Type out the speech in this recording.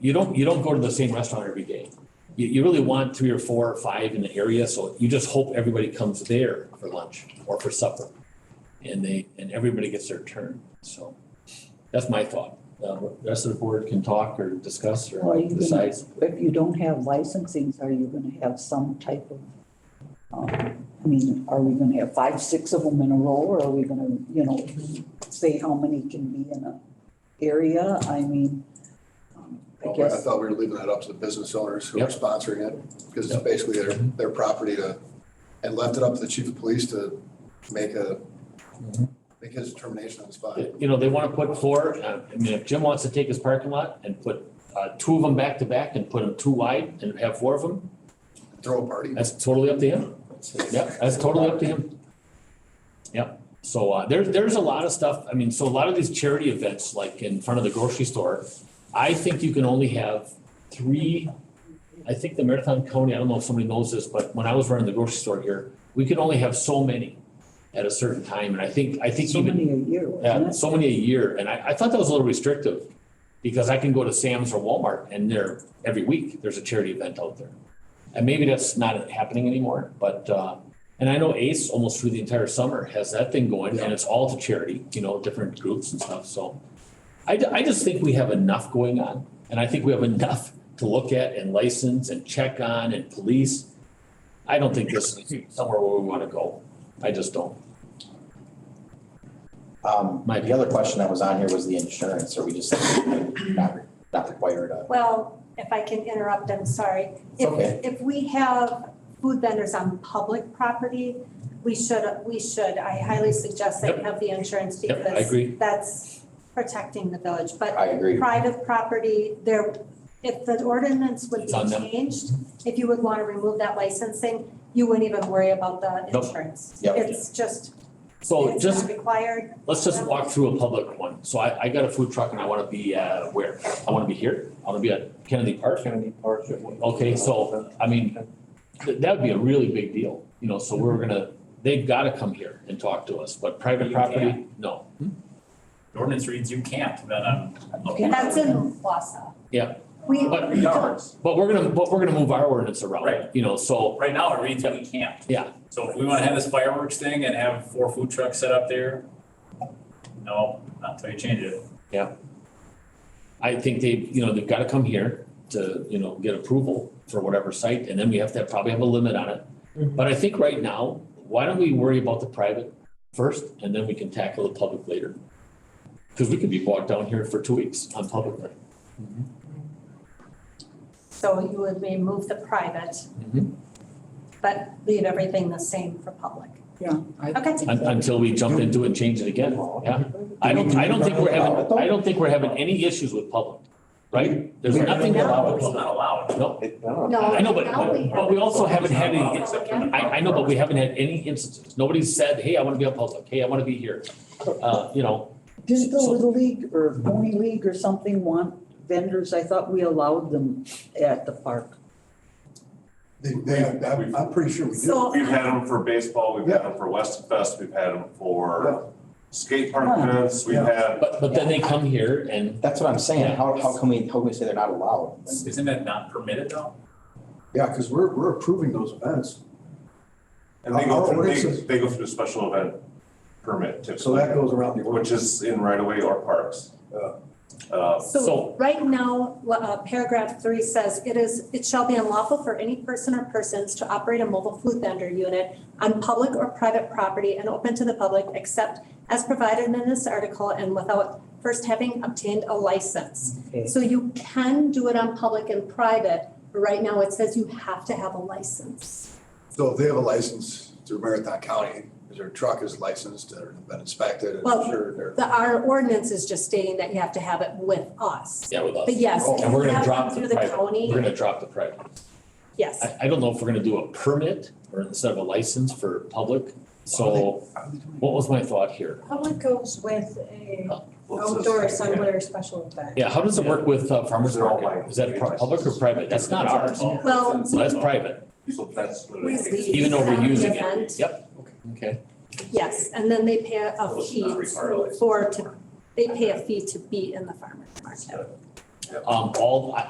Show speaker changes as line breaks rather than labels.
you don't, you don't go to the same restaurant every day. You, you really want three or four or five in the area, so you just hope everybody comes there for lunch or for supper. And they, and everybody gets their turn, so that's my thought. Uh, the rest of the board can talk or discuss
Well,
or
you can-
decide.
If you don't have licensings, are you gonna have some type of, um, I mean, are we gonna have five, six of them in a row? Or are we gonna, you know, say how many can be in a area? I mean, um, I
Oh, I
guess,
thought we were leaving that up to the business owners who are
Yep.
sponsoring it, because it's
Yep.
basically their, their property to, and left it up to the chief of police to make a,
Mm-hmm.
Mhm.
make his determination on the spot.
You know, they wanna put four, uh, I mean, if Jim wants to take his parking lot and put, uh, two of them back to back and put them two wide and have four of them,
Throw a party.
that's totally up to him. Yep, that's totally up to him. Yep, so uh, there, there's a lot of stuff, I mean, so a lot of these charity events, like in front of the grocery store, I think you can only have three, I think the Marathon County, I don't know if somebody knows this, but when I was running the grocery store here, we could only have so many at a certain time, and I think, I think
so
even
many a year,
yeah,
wasn't it?
so many a year, and I, I thought that was a little restrictive, because I can go to Sam's or Walmart and they're, every week, there's a charity event out there. And maybe that's not happening anymore, but, uh, and I know Ace almost through the entire summer has that thing going, and it's all to charity, you know, different groups and stuff, so. I, ju- I just think we have enough going on, and I think we have enough to look at and license and check on and police. I don't think this is somewhere where we wanna go, I just don't.
Um,
Mike.
the other question that was on here was the insurance, are we just not, not required uh, of?
Well, if I can interrupt, I'm sorry.
It's okay.
If, if we have food vendors on public property, we should, we should, I highly suggest that you have the insurance
Yep, I
because
agree,
that's protecting the village. But
I agree.
private property, there, if the ordinance would
It's
be
on them.
changed, if you would want to remove that licensing, you wouldn't even worry about the
Nope.
insurance.
Yep.
It's just,
so
it's
just
not required.
Let's just walk through a public one. So I, I got a food truck and I wanna be, uh, where? I wanna be here. I wanna be at Kennedy Park.
Kennedy Park.
Okay, so, I mean, th- that would be a really big deal, you know, so we're gonna, they've gotta come here and talk to us, but private
You
property, no.
The ordinance reads you can't, then uh, I'm.
Yeah.
That's in Wausau.
Yeah.
We,
But
we don't.
But we're gonna, but we're gonna move our ordinance around,
Right.
you know, so,
Right now, it reads that we can't.
Yeah.
So if we wanna have this fireworks thing and have four food trucks set up there, no, not until you change it.
I think they, you know, they've gotta come here to, you know, get approval for whatever site, and then we have to probably have a limit on it. But I think right now, why don't we worry about the private first, and then we can tackle the public later? Cause we could be bogged down here for two weeks on public land.
So you would remove the private, but leave everything the same for public.
Yeah. I-
Okay.
Un- Until we jump into it and change it again, yeah. I don't, I don't think we're having, I don't think we're having any issues with public, right? There's nothing about
It's
public,
not allowed.
no.
No,
I know, but,
now we
but we also haven't had any,
Public and
I, I know, but we haven't had any instances. Nobody's said, hey, I want to be on public. Hey, I want to be here. Uh, you know,
Didn't the
So-
Little League or Pony League or something want vendors? I thought we allowed them at the park.
They, they, I'm, I'm pretty sure we do.
So,
We've had them for baseball, we've had them for West Fest, we've had them for skate park
Yeah.
events, we've
Yeah.
had,
but, but then they come here and,
That's what I'm saying, how, how can we, how can we say they're not allowed?
Isn't that not permitted though?
Yeah, because we're, we're approving those events.
and they go
Our
through, they,
ordinances-
they go through a special event permit
So
typically,
that goes around the
which is in right away or parks. Uh,
So-
so right now, la- uh, paragraph three says, it is, it shall be unlawful for any person or persons to operate a mobile food vendor unit on public or private property and open to the public except as provided in this article and without first having obtained a license.
Okay.
So you can do it on public and private, but right now it says you have to have a license.
So if they have a license through Marathon County, is their truck is licensed or been inspected and
Well,
sure they're.
The, our ordinance is just stating that you have to have it with us.
yeah, with us.
But yes, if
Oh, And we're
you
gonna
have
drop
one
the
through the
private, we're
county,
gonna drop the private.
yes.
I, I don't know if we're gonna do a permit or instead of a license for public. So what was my thought here?
Public goes with a
what's this?
outdoor somewhere special event.
Yeah, how does it work with uh, farmers
They're all
market?
mine.
Is that pro- public or private? That's not ours.
Oh,
Well,
So that's private,
So that's what it
We-
is.
we
even though we're
set the
using it.
event,
Yep. Okay.
Yes, and then they pay a
Those are not
fee
required.
for, to, they pay a fee to be in the farmer's market.
Um, all,